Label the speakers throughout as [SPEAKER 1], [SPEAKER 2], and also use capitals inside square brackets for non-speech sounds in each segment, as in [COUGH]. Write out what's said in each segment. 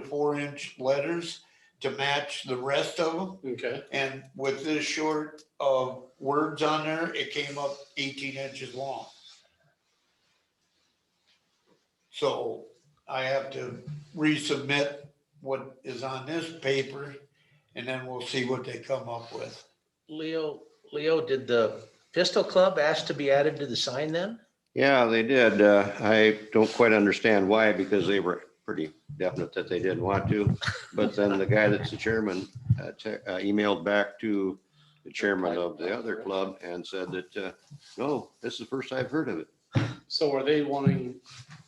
[SPEAKER 1] four inch letters to match the rest of them.
[SPEAKER 2] Okay,
[SPEAKER 1] And with this short of words on there, it came up eighteen inches long. So I have to resubmit what is on this paper and then we'll see what they come up with.
[SPEAKER 3] Leo, Leo, did the Pistol Club ask to be added to the sign then?
[SPEAKER 4] Yeah, they did. Uh, I don't quite understand why, because they were pretty definite that they didn't want to. But then the guy that's the chairman uh, te- uh, emailed back to the chairman of the other club and said that, uh, no, this is the first I've heard of it.
[SPEAKER 2] so are they wanting,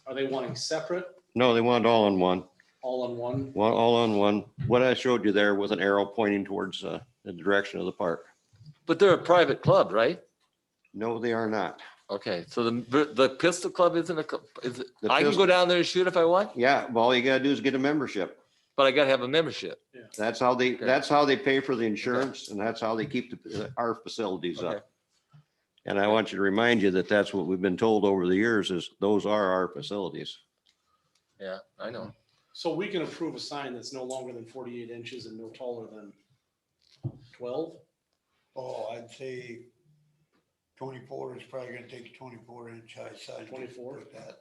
[SPEAKER 2] are they wanting separate,
[SPEAKER 4] No, they want it all in one,
[SPEAKER 2] all in one?
[SPEAKER 4] one, all on one. What I showed you there with an arrow pointing towards uh, the direction of the park.
[SPEAKER 5] But they're a private club, right?
[SPEAKER 4] No, they are not.
[SPEAKER 5] Okay, so the, the pistol club isn't a, cl- is, it-
[SPEAKER 4] The
[SPEAKER 5] I can
[SPEAKER 4] pistol-
[SPEAKER 5] go down there and shoot if I want,
[SPEAKER 4] Yeah, well, all you gotta do is get a membership.
[SPEAKER 5] but I gotta have a membership.
[SPEAKER 4] That's how they,
[SPEAKER 5] Okay.
[SPEAKER 4] that's how they pay for the insurance and that's how they keep the- our facilities
[SPEAKER 5] Okay.
[SPEAKER 4] up. And I want you to remind you that that's what we've been told over the years is those are our facilities.
[SPEAKER 5] Yeah, I know.
[SPEAKER 2] So we can approve a sign that's no longer than forty-eight inches and no taller than twelve?
[SPEAKER 1] Oh, I'd say twenty-four is probably gonna take a twenty-four inch high side.
[SPEAKER 2] 24?
[SPEAKER 1] That.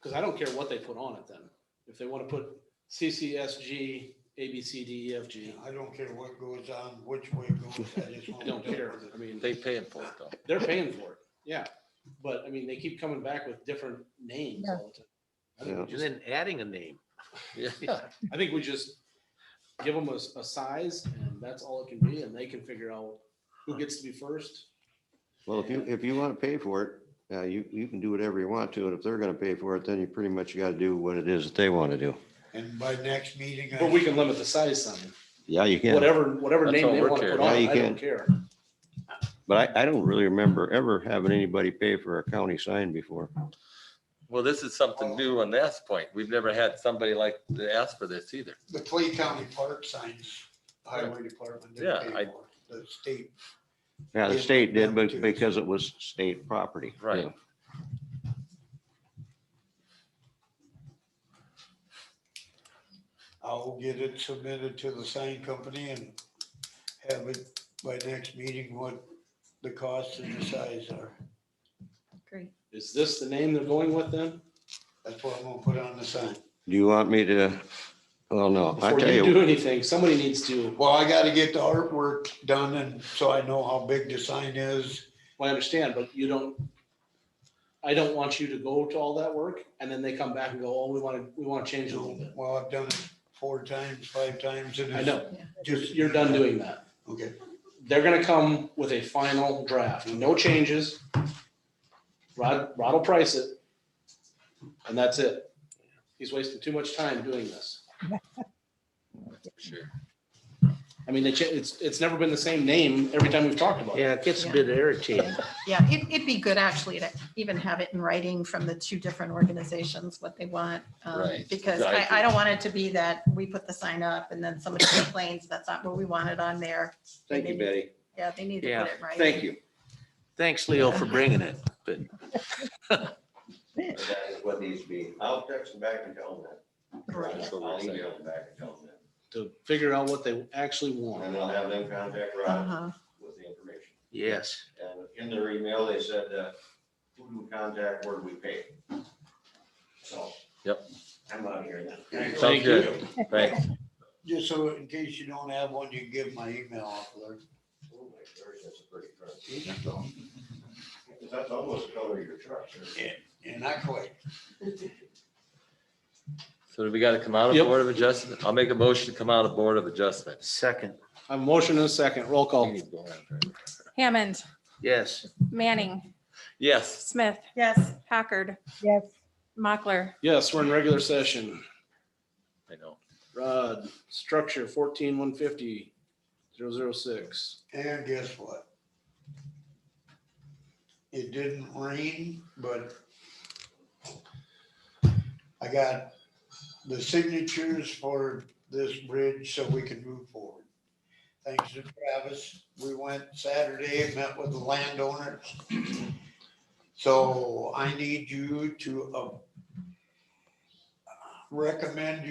[SPEAKER 2] Because I don't care what they put on it then. If they want to put CCSG, ABCDEFG,
[SPEAKER 1] I don't care what goes on, which way it goes, I
[SPEAKER 2] [LAUGHS]
[SPEAKER 1] just
[SPEAKER 2] I
[SPEAKER 1] want.
[SPEAKER 2] don't
[SPEAKER 1] to
[SPEAKER 2] care. I mean,
[SPEAKER 5] They paying for it though.
[SPEAKER 2] they're paying for it, yeah. But I mean, they keep coming back with different names all the time. I think we
[SPEAKER 4] Yeah.
[SPEAKER 3] And then adding a name.
[SPEAKER 5] Yeah,
[SPEAKER 2] I think we just give them a, s- a size and that's all it can be and they can figure out who gets to be first.
[SPEAKER 4] Well, if you, if you want to pay for it, uh, you, you can do whatever you want to. And if they're going to pay for it, then you pretty much got to do what it is that they want to do.
[SPEAKER 1] And by next meeting. I
[SPEAKER 2] But we can limit the size sign,
[SPEAKER 4] Yeah, you can.
[SPEAKER 2] whatever, whatever
[SPEAKER 5] That's
[SPEAKER 2] name
[SPEAKER 5] all
[SPEAKER 2] they
[SPEAKER 5] we're
[SPEAKER 2] want to put
[SPEAKER 5] caring.
[SPEAKER 2] on,
[SPEAKER 4] Yeah, you
[SPEAKER 2] it, I don't
[SPEAKER 4] can.
[SPEAKER 2] care.
[SPEAKER 4] But I, I don't really remember ever having anybody pay for a county sign before.
[SPEAKER 5] well, this is something new on that point. We've never had somebody like to ask for this either.
[SPEAKER 1] the Clay County Park signs, Highway Department. didn't
[SPEAKER 5] Yeah,
[SPEAKER 1] pay
[SPEAKER 5] I-
[SPEAKER 1] for it. The state,
[SPEAKER 4] Yeah, the
[SPEAKER 1] Yeah,
[SPEAKER 4] state did,
[SPEAKER 1] them
[SPEAKER 4] but
[SPEAKER 1] too.
[SPEAKER 4] because it was state property.
[SPEAKER 5] Right.
[SPEAKER 4] Yeah.
[SPEAKER 1] I'll get it submitted to the sign company and have it by next meeting, what the cost and the size are.
[SPEAKER 6] Great.
[SPEAKER 2] Is this the name they're going with then?
[SPEAKER 1] That's what I'm gonna put on the sign.
[SPEAKER 4] Do you want me to, well, no, I
[SPEAKER 2] Before
[SPEAKER 4] tell
[SPEAKER 2] you
[SPEAKER 4] you,
[SPEAKER 2] do anything, somebody needs to,
[SPEAKER 1] Well, I gotta get the artwork done and so I know how big the sign is.
[SPEAKER 2] well, I understand, but you don't, I don't want you to go to all that work and then they come back and go, oh, we want to, we want to change it a little bit.
[SPEAKER 1] Well, I've done it four times, five times and
[SPEAKER 2] I
[SPEAKER 1] it's
[SPEAKER 2] know,
[SPEAKER 1] just,
[SPEAKER 2] you're done doing that.
[SPEAKER 1] okay,
[SPEAKER 2] they're gonna come with a final draft, no changes. Rod, Rod will price it. And that's it. He's wasting too much time doing this.
[SPEAKER 5] Sure.
[SPEAKER 2] I mean, they cha- it's, it's never been the same name every time we've talked about it.
[SPEAKER 3] Yeah, it gets a bit irritating.
[SPEAKER 6] Yeah, it, it'd be good actually to even have it in writing from the two different organizations, what they want. um,
[SPEAKER 5] Right.
[SPEAKER 6] Because
[SPEAKER 5] Yeah, I
[SPEAKER 6] I,
[SPEAKER 5] agree.
[SPEAKER 6] I don't want it to be that we put the sign up and then somebody complains, that's not what we wanted on there.
[SPEAKER 4] thank you, Betty.
[SPEAKER 6] Yeah, they need to
[SPEAKER 3] Yeah,
[SPEAKER 6] put it right.
[SPEAKER 4] Thank you.
[SPEAKER 3] Thanks, Leo, for bringing it, but
[SPEAKER 4] That is what needs to be. I'll text them back and tell them that.
[SPEAKER 6] Right.
[SPEAKER 4] I'll email them back and tell them that.
[SPEAKER 2] To figure out what they actually
[SPEAKER 4] And
[SPEAKER 2] want.
[SPEAKER 4] then I'll have them contact Rod
[SPEAKER 6] Uh-huh.
[SPEAKER 4] with the information.
[SPEAKER 3] yes,
[SPEAKER 4] And in their email, they said, uh, who do we contact, where do we pay? So.
[SPEAKER 5] Yep.
[SPEAKER 4] I'm out of here then.
[SPEAKER 5] Sounds good. Thanks.
[SPEAKER 1] just so in case you don't have one, you can give my email off there.
[SPEAKER 4] Oh my gosh, that's a pretty truck. That's almost the color of your truck, sir.
[SPEAKER 1] And I quit.
[SPEAKER 5] So do we gotta come out of
[SPEAKER 2] Yep.
[SPEAKER 5] Board of Adjustment? I'll make a motion to come out of Board of Adjustment.
[SPEAKER 3] second,
[SPEAKER 2] I have a motion and a second, roll
[SPEAKER 5] We
[SPEAKER 2] call.
[SPEAKER 5] need to go on first.
[SPEAKER 7] Hammond,
[SPEAKER 3] yes.
[SPEAKER 7] Manning,
[SPEAKER 5] Yes.
[SPEAKER 7] Smith,
[SPEAKER 6] Yes,
[SPEAKER 7] Packard,
[SPEAKER 8] Yes.
[SPEAKER 7] Mockler,
[SPEAKER 2] Yes, we're in regular session.
[SPEAKER 5] I know.
[SPEAKER 2] Rod, structure fourteen one fifty, zero zero six.
[SPEAKER 1] And guess what? It didn't rain, but I got the signatures for this bridge so we can move forward. Thanks to Travis, we went Saturday, met with the landowners. So I need you to uh, recommend